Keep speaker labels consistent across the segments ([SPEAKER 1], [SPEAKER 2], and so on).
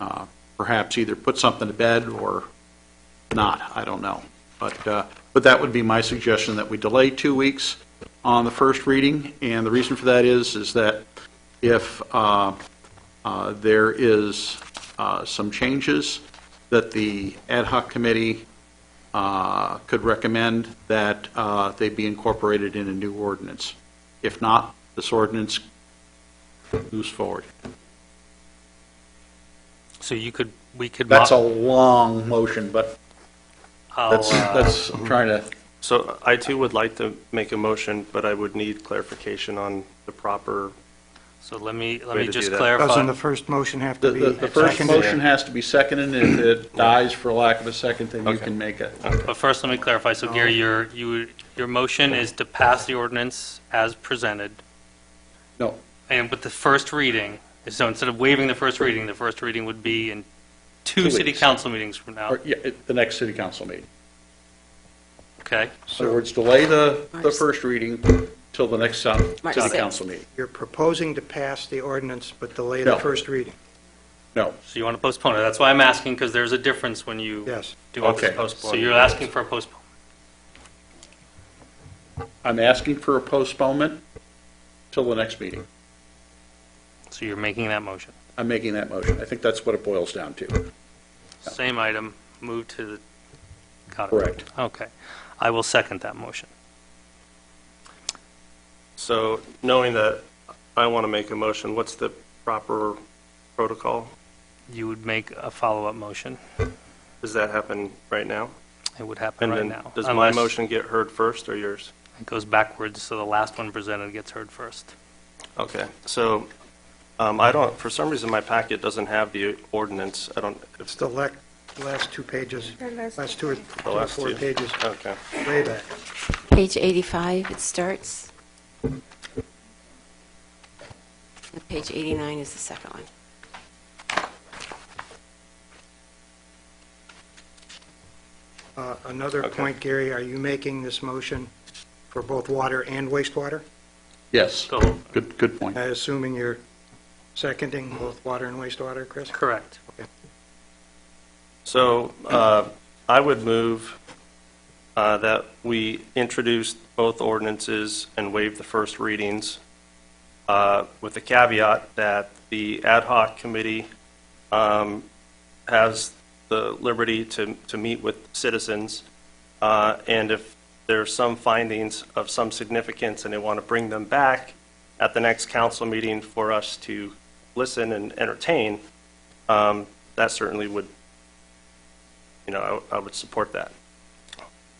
[SPEAKER 1] uh, perhaps either put something to bed or not, I don't know. But, uh, but that would be my suggestion, that we delay two weeks on the first reading, and the reason for that is, is that if uh, uh, there is uh, some changes that the ad hoc committee uh, could recommend, that uh, they be incorporated in a new ordinance. If not, this ordinance moves forward.
[SPEAKER 2] So you could, we could.
[SPEAKER 1] That's a
[SPEAKER 2] mo-
[SPEAKER 1] long motion, but
[SPEAKER 2] I'll,
[SPEAKER 1] that's,
[SPEAKER 2] uh,
[SPEAKER 1] that's, I'm trying to,
[SPEAKER 3] So I too would like to make a motion, but I would need clarification on the proper,
[SPEAKER 2] So let me, let
[SPEAKER 3] Way
[SPEAKER 2] me
[SPEAKER 3] to
[SPEAKER 2] just
[SPEAKER 3] do that.
[SPEAKER 4] Doesn't the
[SPEAKER 2] clarify.
[SPEAKER 4] first motion have
[SPEAKER 1] the,
[SPEAKER 4] to be?
[SPEAKER 1] the the first
[SPEAKER 4] seconded?
[SPEAKER 1] motion has to be seconded, and if it dies for lack of a second, then you
[SPEAKER 3] Okay.
[SPEAKER 1] can make it.
[SPEAKER 2] But first, let me clarify. So Gary, your, you, your motion is to pass the ordinance as presented.
[SPEAKER 1] No.
[SPEAKER 2] And with the first reading, so instead of waiving the first reading, the first reading would be in two
[SPEAKER 1] Two
[SPEAKER 2] city
[SPEAKER 1] weeks.
[SPEAKER 2] council meetings from now.
[SPEAKER 1] Or, yeah, at the next city council meeting.
[SPEAKER 2] Okay?
[SPEAKER 1] In other words, delay the, the
[SPEAKER 5] March-
[SPEAKER 1] first reading till the next uh,
[SPEAKER 5] March
[SPEAKER 1] city
[SPEAKER 5] sixth.
[SPEAKER 1] council meeting.
[SPEAKER 4] You're proposing to pass the ordinance but delay the
[SPEAKER 1] No.
[SPEAKER 4] first reading.
[SPEAKER 1] No,
[SPEAKER 2] So you want to postpone it. That's why I'm asking, because there's a difference when you
[SPEAKER 4] Yes.
[SPEAKER 2] do all this
[SPEAKER 1] Okay.
[SPEAKER 2] postpone. So you're asking for a postpone.
[SPEAKER 1] I'm asking for a postponement till the next meeting.
[SPEAKER 2] So you're making that motion.
[SPEAKER 1] I'm making that motion. I think that's what it boils down to.
[SPEAKER 2] Same item, move to the, got it.
[SPEAKER 1] Correct.
[SPEAKER 2] Okay. I will second that motion.
[SPEAKER 3] so knowing that I want to make a motion, what's the proper protocol?
[SPEAKER 2] You would make a follow-up motion.
[SPEAKER 3] Does that happen right now?
[SPEAKER 2] It would happen
[SPEAKER 3] And
[SPEAKER 2] right
[SPEAKER 3] then
[SPEAKER 2] now.
[SPEAKER 3] Does my
[SPEAKER 2] unless
[SPEAKER 3] motion get heard first or yours?
[SPEAKER 2] It goes backwards, so the last one presented gets heard first.
[SPEAKER 3] Okay, so um, I don't, for some reason, my packet doesn't have the ordinance. I don't,
[SPEAKER 4] It's
[SPEAKER 3] it's
[SPEAKER 4] the lec- last two pages, last two or two
[SPEAKER 3] the
[SPEAKER 4] or
[SPEAKER 3] last two.
[SPEAKER 4] four pages,
[SPEAKER 3] Okay.
[SPEAKER 4] way back.
[SPEAKER 5] Page 85, it starts. And Page 89 is the second one.
[SPEAKER 4] Uh, Another
[SPEAKER 3] Okay.
[SPEAKER 4] point, Gary, are you making this motion for both water and wastewater?
[SPEAKER 1] Yes,
[SPEAKER 2] So,
[SPEAKER 1] good, good point.
[SPEAKER 4] I Assuming you're seconding both water and wastewater, Chris?
[SPEAKER 2] correct.
[SPEAKER 3] So uh, I would move uh, that we introduce both ordinances and waive the first readings uh, with the caveat that the ad hoc committee um, has the liberty to, to meet with citizens. uh, And if there's some findings of some significance and they want to bring them back at the next council meeting for us to listen and entertain, um, that certainly would you know, I, I would support that.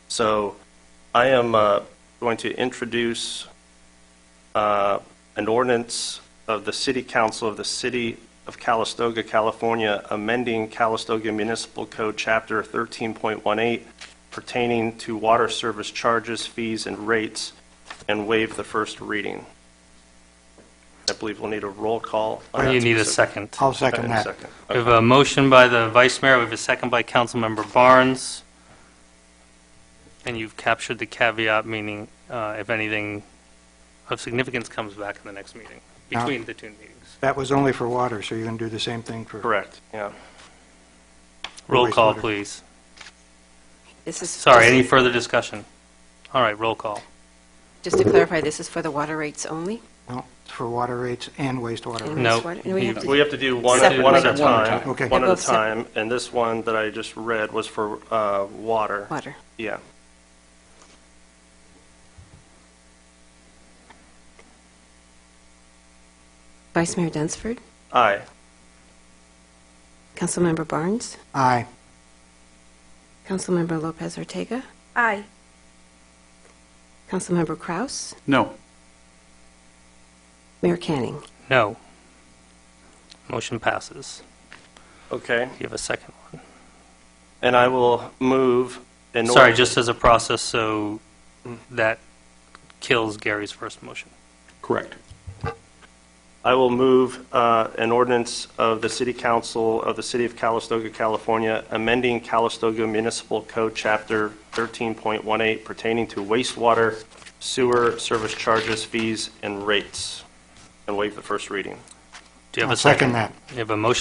[SPEAKER 3] So I am uh, going to introduce uh, an ordinance of the City Council of the City of Calistoga, California, amending Calistoga Municipal Code Chapter 13.18 pertaining to water service charges, fees, and rates, and waive the first reading. I believe we'll need a roll call. on that
[SPEAKER 2] You need a
[SPEAKER 3] specific-
[SPEAKER 2] second.
[SPEAKER 4] I'll
[SPEAKER 3] Okay,
[SPEAKER 4] second that.
[SPEAKER 3] Second.
[SPEAKER 2] We have a motion by the vice mayor, we have a second by Councilmember Barnes. And you've captured the caveat, meaning uh, if anything of significance comes back in the next meeting,
[SPEAKER 4] Now-
[SPEAKER 2] between the two meetings.
[SPEAKER 4] That was only for water, so you're going to do the same thing for...
[SPEAKER 3] Correct, yeah.
[SPEAKER 2] Roll call,
[SPEAKER 4] Wastewater.
[SPEAKER 2] please.
[SPEAKER 5] This is.
[SPEAKER 2] Sorry, any further discussion? All right, roll call.
[SPEAKER 5] Just to clarify, this is for the water rates only?
[SPEAKER 4] No, it's for water rates and wastewater.
[SPEAKER 5] And
[SPEAKER 2] No.
[SPEAKER 5] wastewater- and we have to-
[SPEAKER 3] We have to do one,
[SPEAKER 5] Separate.
[SPEAKER 3] one at a
[SPEAKER 2] Separate.
[SPEAKER 3] time.
[SPEAKER 4] Okay.
[SPEAKER 3] One
[SPEAKER 5] They're
[SPEAKER 3] at
[SPEAKER 5] both
[SPEAKER 3] a
[SPEAKER 5] separate.
[SPEAKER 3] time, and this one that I just read was for uh, water.
[SPEAKER 5] Water.
[SPEAKER 3] Yeah.
[SPEAKER 5] Vice Mayor Dunsford,
[SPEAKER 3] Aye.
[SPEAKER 5] Councilmember Barnes,
[SPEAKER 4] Aye.
[SPEAKER 5] Councilmember Lopez Ortega,
[SPEAKER 6] Aye.
[SPEAKER 5] Councilmember Kraus,
[SPEAKER 1] No,
[SPEAKER 5] Mayor Canning.
[SPEAKER 2] No. Motion passes.
[SPEAKER 3] Okay.
[SPEAKER 2] You have a second one.
[SPEAKER 3] And I will move in order.
[SPEAKER 2] Sorry, just as a process, so that kills Gary's first motion.
[SPEAKER 1] correct.
[SPEAKER 3] I will move uh, an ordinance of the City Council of the City of Calistoga, California, amending Calistoga Municipal Code Chapter 13.18 pertaining to wastewater, sewer, service charges, fees, and rates, and waive the first reading.
[SPEAKER 2] Do you have
[SPEAKER 4] I'll
[SPEAKER 2] a second?
[SPEAKER 4] second that.
[SPEAKER 2] You have a motion